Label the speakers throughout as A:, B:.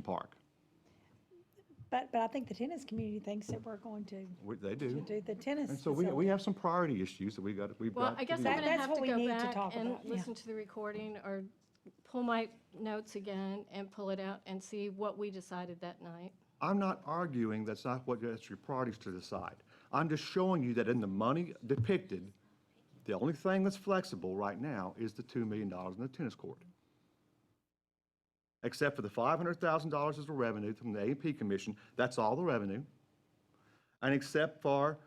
A: Park.
B: But, but I think the tennis community thinks that we're going to
A: We- They do.
B: do the tennis.
A: And so we, we
B: facility.
A: have some priority issues that we got, we've got.
C: Well, I
A: to
C: guess I'm
A: deal with.
B: That-
C: going to
B: that's
C: have
B: what
C: to
B: we
C: go
B: need to
C: back
B: talk
C: and
B: about, yeah.
C: listen to the recording or pull my notes again and pull it out and see what we decided that night.
A: I'm not arguing that's not what, that's your priorities to decide. I'm just showing you that in the money depicted, the only thing that's flexible right now is the $2 million in the tennis court. Except for the $500,000 is the revenue from the A&P Commission, that's all the revenue. And except for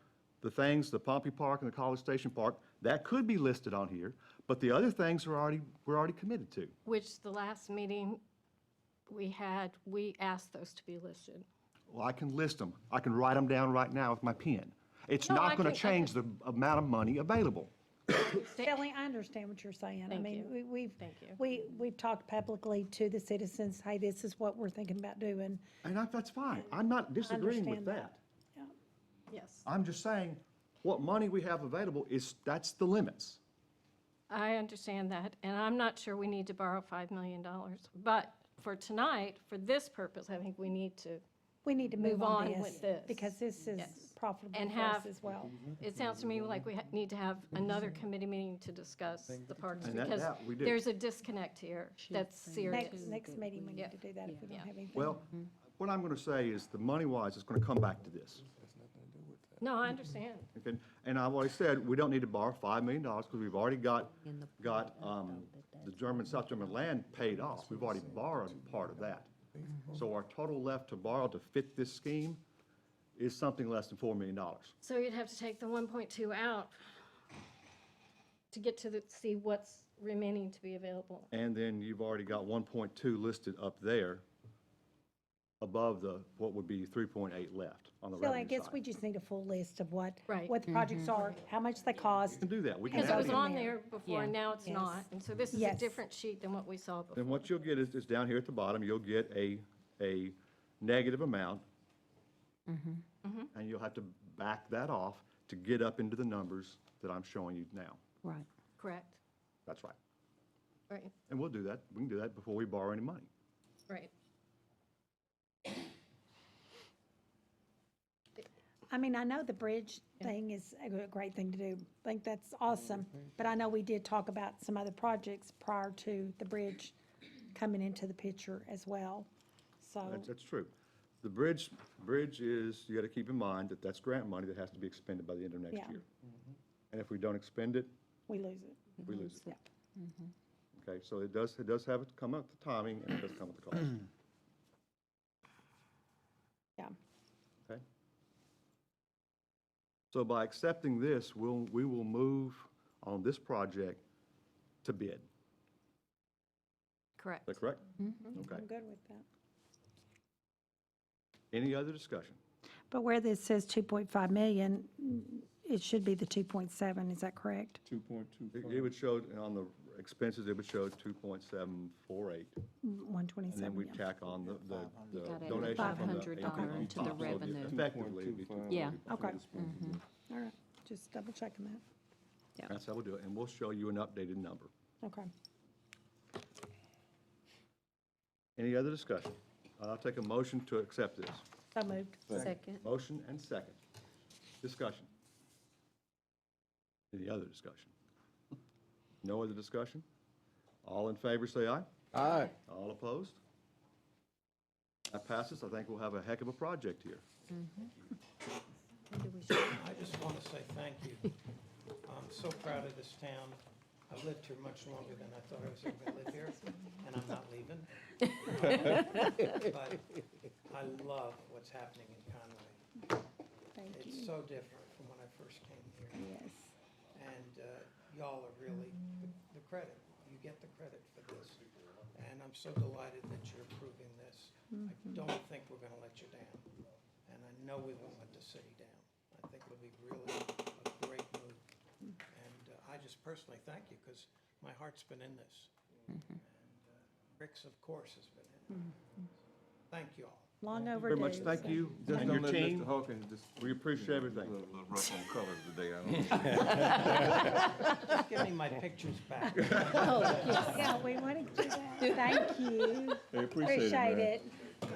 A: the things, the Pompey Park and the College Station Park, that could be listed on here, but the other things are already, we're already committed to.
C: Which the last meeting we had, we asked those to be listed.
A: Well, I can list them. I can write them down right now with my pen. It's
C: No,
A: not
C: I
A: going
C: can-
A: to
C: I
A: change the amount of money available.
B: Shelley, I understand what you're saying. I
C: Thank
B: mean,
C: you.
B: we, we've,
C: Thank you.
B: we, we've talked publicly to the citizens, hey, this is what we're thinking about doing.
A: And I- that's fine. I'm not disagreeing with
B: understand
A: that.
B: that. Yeah.
C: Yes,
A: I'm just saying, what money we have available is, that's the limits.
C: I understand that, and I'm not sure we need to borrow $5 million. But for tonight, for this purpose, I think we need to,
B: We need to move
C: Move
B: on
C: on
B: this,
C: with this.
B: because this is
C: Yes.
B: profitable
C: And
B: for us
C: have-
B: as well.
C: it sounds to me like we ha- need to have another committee meeting to discuss the parks.
A: And that-
C: Because
A: that we do.
C: there's a disconnect here that's serious.
B: Next, next meeting, we
C: Yeah.
B: need to do that if we don't
C: Yeah.
B: have anything.
A: Well,
C: Mm-hmm.
A: what I'm going to say is, the money-wise, it's going to come back to this.
C: No, I understand.
A: Okay? And I've already said, we don't need to borrow $5 million because we've already got, got um, the German, South German land paid off. We've already borrowed part of that. So our total left to borrow to fit this scheme is something less than $4 million.
C: So you'd have to take the one point two out to get to the, see what's remaining to be available.
A: And then you've already got 1.2 listed up there above the, what would be 3.8 left on the
B: Shelley, I
A: revenue
B: guess we
A: side.
B: just need a full list of what,
C: Right.
B: what the projects are, how much they cost.
A: We can do that. We can
C: Because it
A: add
C: was
A: in.
C: on there before,
D: Yeah.
C: now it's
B: Yes.
C: not. And so this is a
B: Yes.
C: different sheet than what we saw before.
A: Then what you'll get is, is down here at the bottom, you'll get a, a negative amount.
C: Mm-hmm.
A: And you'll have to back that off to get up into the numbers that I'm showing you now.
D: Right.
C: Correct.
A: That's right.
C: Right,
A: And we'll do that, we can do that before we borrow any money.
C: right.
B: I mean, I know the bridge thing is a gr- great thing to do. I think that's awesome. But I know we did talk about some other projects prior to the bridge coming into the picture as well. So,
A: That's, that's true. The bridge, bridge is, you got to keep in mind that that's grant money that has to be expended by the end of next
B: Yeah.
A: year. And if we don't expend it,
B: we lose it.
A: we lose it.
B: Yeah.
A: Okay, so it does, it does have it come up the timing and it does come up the cost.
B: Yeah.
A: Okay. So by accepting this, we'll, we will move on this project to bid. Is
C: Correct.
A: that correct? Okay.
B: I'm good with that.
A: Any other discussion?
B: But where this says 2.5 million, it should be the 2.7, is that correct?
E: Two point two
A: It- It
E: five.
A: would show, on the expenses, it would show 2.748. And then we
B: 127, yeah.
A: tack on the, the- the
D: Got it.
A: donation
D: Five
A: from the.
D: hundred
A: AP.
D: dollar into the
A: So the-
D: revenue.
A: Effectively, it'd be 2.748.
D: Yeah.
B: Okay. All right, just double checking that.
A: That's how we'll do it, and we'll show you an updated number.
B: Okay.
A: Any other discussion? I'll take a motion to accept this.
B: So moved.
D: Second.
A: Motion and second. Discussion. Any other discussion? No other discussion? All in favor, say aye.
E: Aye.
A: All opposed? That passes. I think we'll have a heck of a project here.
F: I just want to say thank you. I'm so proud of this town. I've lived here much longer than I thought I was ever going to live here, and I'm not leaving. But I love what's happening in Conway.
B: Thank you.
F: It's so different from when I first came here,
B: Yes.
F: and uh, y'all are really the- the credit. You get the credit for this, and I'm so delighted that you're approving this. I don't think we're going to let you down, and I know we won't let the city down. I think it'll be really a great move. And uh, I just personally thank you because my heart's been in this. And, uh, Rick's, of course, has been in it. Thank you all.
B: Long overdue.
A: Very much thank
B: so-
A: you and
E: And
A: your
E: don't let Mr.
A: team.
E: Hawkins just.
A: We appreciate everything.
E: A little rough on colors today, I don't know.
F: Just give me my pictures back.
B: Yeah, we want to do that. Thank you.
E: They appreciate it,
B: Appreciate
E: man.
B: it.